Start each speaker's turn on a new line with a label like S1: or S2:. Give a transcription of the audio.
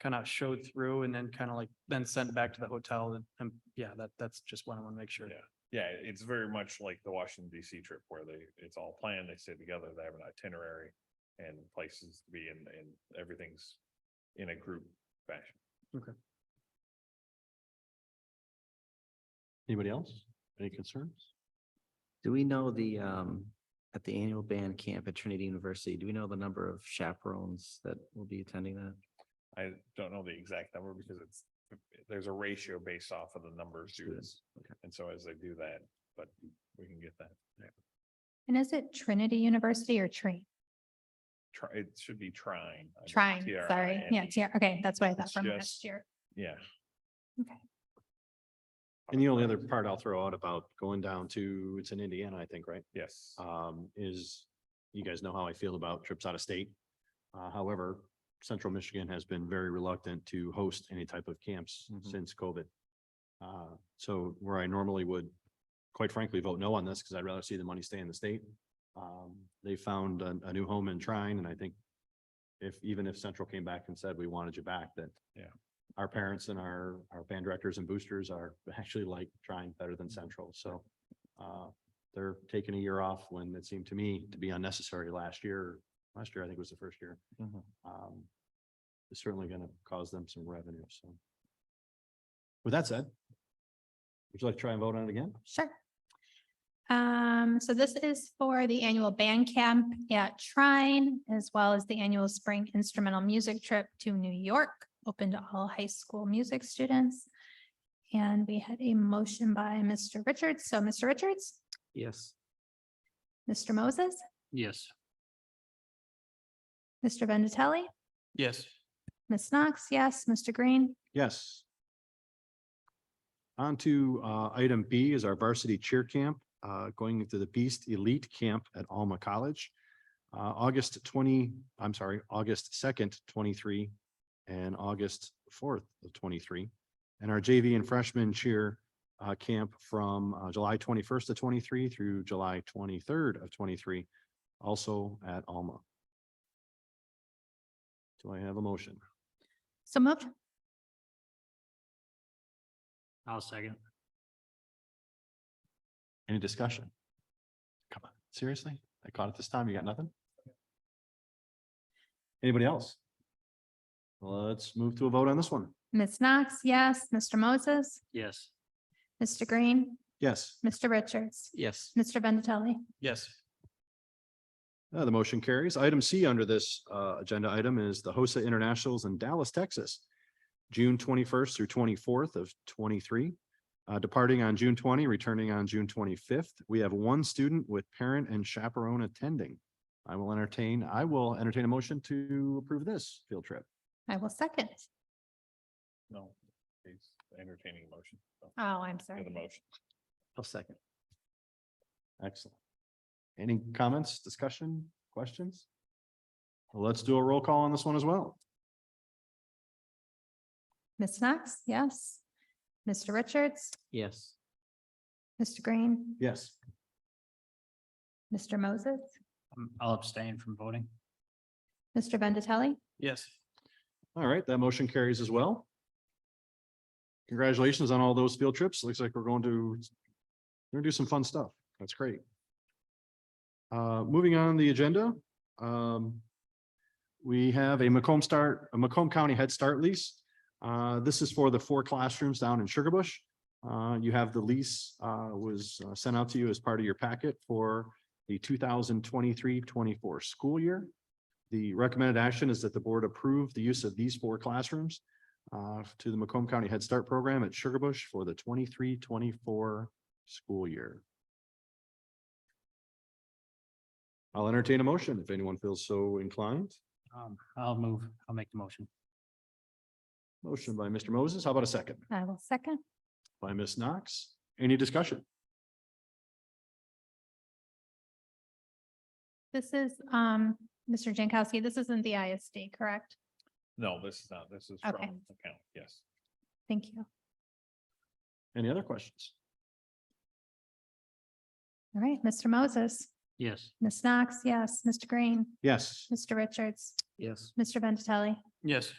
S1: kind of showed through and then kind of like, then sent back to the hotel and, and yeah, that, that's just what I want to make sure.
S2: Yeah. Yeah, it's very much like the Washington DC trip where they, it's all planned, they stay together, they have an itinerary and places to be and, and everything's in a group fashion.
S3: Anybody else? Any concerns?
S4: Do we know the, um, at the annual band camp at Trinity University, do we know the number of chaperones that will be attending that?
S2: I don't know the exact number because it's, there's a ratio based off of the number of students.
S4: okay.
S2: And so as they do that, but we can get that.
S5: And is it Trinity University or Tree?
S2: Try, it should be trying. I mean,
S5: Trying,
S2: T R I
S5: sorry.
S2: N
S5: Yeah,
S2: E.
S5: yeah, okay, that's what I
S2: It's
S5: thought from
S2: just-
S5: last year.
S2: Yeah.
S5: Okay.
S3: And the only other part I'll throw out about going down to, it's in Indiana, I think, right?
S2: Yes.
S3: Um, is you guys know how I feel about trips out of state. Uh, however, Central Michigan has been very reluctant to host any type of camps
S4: Mhm.
S3: since COVID. Uh, so where I normally would, quite frankly, vote no on this because I'd rather see the money stay in the state. Um, they found a, a new home in Trine and I think if, even if Central came back and said, we wanted you back, that
S2: Yeah.
S3: our parents and our, our band directors and boosters are actually like trying better than Central. So, uh, they're taking a year off when it seemed to me to be unnecessary last year. Last year, I think was the first year.
S4: Mhm.
S3: Um, It's certainly going to cause them some revenue, so. With that said, would you like to try and vote on it again?
S5: Sure. Um, so this is for the annual band camp at Trine, as well as the annual spring instrumental music trip to New York, open to all high school music students. And we had a motion by Mr. Richards. So Mr. Richards,
S4: Yes.
S5: Mr. Moses,
S1: Yes.
S5: Mr. Vendatelli,
S1: Yes.
S5: Ms. Knox, yes, Mr. Green,
S3: Yes. On to uh, item B is our varsity cheer camp, uh, going into the Beast Elite Camp at Alma College. uh, August twenty, I'm sorry, August second, twenty-three, and August fourth of twenty-three. And our JV and freshman cheer uh, camp from uh, July twenty-first of twenty-three through July twenty-third of twenty-three, also at Alma. Do I have a motion?
S5: so moved.
S1: I'll second.
S3: Any discussion? Come on, seriously? I caught it this time. You got nothing? Anybody else? Let's move to a vote on this one.
S5: Ms. Knox, yes, Mr. Moses,
S1: Yes.
S5: Mr. Green,
S3: Yes,
S5: Mr. Richards,
S4: Yes.
S5: Mr. Vendatelli,
S1: Yes.
S3: uh, the motion carries. Item C under this uh, agenda item is the HOSA Internationals in Dallas, Texas. June twenty-first through twenty-fourth of twenty-three, uh, departing on June twenty, returning on June twenty-fifth. We have one student with parent and chaperone attending. I will entertain, I will entertain a motion to approve this field trip.
S5: I will second.
S2: No, it's entertaining motion. so,
S5: Oh, I'm sorry.
S2: The motion.
S4: I'll second.
S3: Excellent. Any comments, discussion, questions? Let's do a roll call on this one as well.
S5: Ms. Knox, yes. Mr. Richards,
S4: Yes.
S5: Mr. Green,
S3: Yes.
S5: Mr. Moses,
S1: Um, I'll abstain from voting.
S5: Mr. Vendatelli,
S1: Yes.
S3: All right, that motion carries as well. Congratulations on all those field trips. Looks like we're going to, we're gonna do some fun stuff. That's great. Uh, moving on the agenda, um, we have a Macomb Start, a Macomb County Head Start lease. Uh, this is for the four classrooms down in Sugar Bush. Uh, you have the lease, uh, was uh, sent out to you as part of your packet for the 2023-24 school year. The recommended action is that the board approve the use of these four classrooms uh, to the Macomb County Head Start Program at Sugar Bush for the 23-24 school year. I'll entertain a motion if anyone feels so inclined.
S1: Um, I'll move. I'll make the motion.
S3: Motion by Mr. Moses. How about a second?
S5: I will second.
S3: By Ms. Knox. Any discussion?
S5: This is, um, Mr. Jankowski, this isn't the ISD, correct?
S2: No, this is not, this is from
S5: Okay.
S2: account, yes.
S5: Thank you.
S3: Any other questions?
S5: All right, Mr. Moses,
S1: Yes.
S5: Ms. Knox, yes, Mr. Green,
S3: Yes.
S5: Mr. Richards,
S4: Yes.
S5: Mr. Vendatelli,
S1: Yes.